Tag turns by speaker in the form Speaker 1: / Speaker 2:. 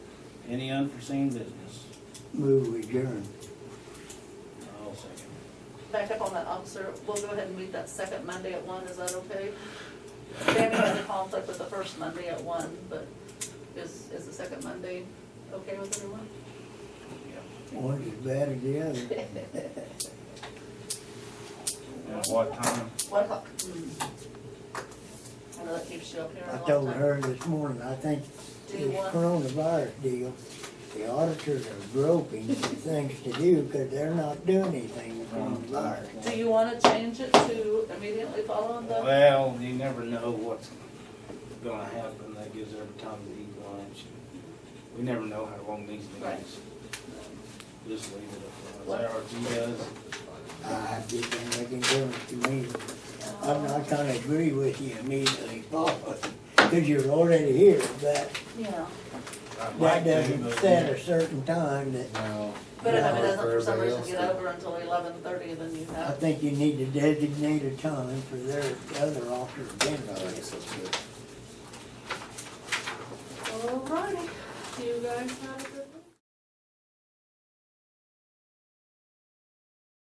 Speaker 1: Any unforeseen business?
Speaker 2: Move we adjourn.
Speaker 1: I'll second.
Speaker 3: Back up on that officer, we'll go ahead and meet that second Monday at one, is that okay? Tammy had a conflict with the first Monday at one, but is, is the second Monday okay with everyone?
Speaker 2: One's as bad as the other.
Speaker 1: At what time?
Speaker 3: One o'clock. Mm-hmm. I know that keeps you up here a
Speaker 2: I
Speaker 3: long
Speaker 2: told
Speaker 3: time.
Speaker 2: her this morning, I think
Speaker 3: Do you
Speaker 2: this
Speaker 3: want-
Speaker 2: coronavirus deal, the auditors are groping for things to do because they're not doing anything with coronavirus.
Speaker 3: Do you wanna change it to immediately following the,
Speaker 1: Well, you never know what's gonna happen, that gives every time to eat lunch. We never know how long these
Speaker 3: Right.
Speaker 1: things. Just leave it up. to us. Is that what you guys?
Speaker 2: I just think making difference to me. I'm not gonna agree with you immediately, Paul, because you're already here, but
Speaker 3: yeah,
Speaker 1: I'd like
Speaker 2: that
Speaker 1: to,
Speaker 2: doesn't
Speaker 1: but-
Speaker 2: set a certain time that
Speaker 4: No.
Speaker 3: but if it
Speaker 2: No,
Speaker 3: doesn't for some
Speaker 4: everybody
Speaker 3: reason
Speaker 4: else
Speaker 3: get
Speaker 4: did.
Speaker 3: over until eleven thirty, then you
Speaker 2: I
Speaker 3: have,
Speaker 2: think you need to designate a time for their other officers to
Speaker 4: I think so too.
Speaker 3: alrighty, you guys have a good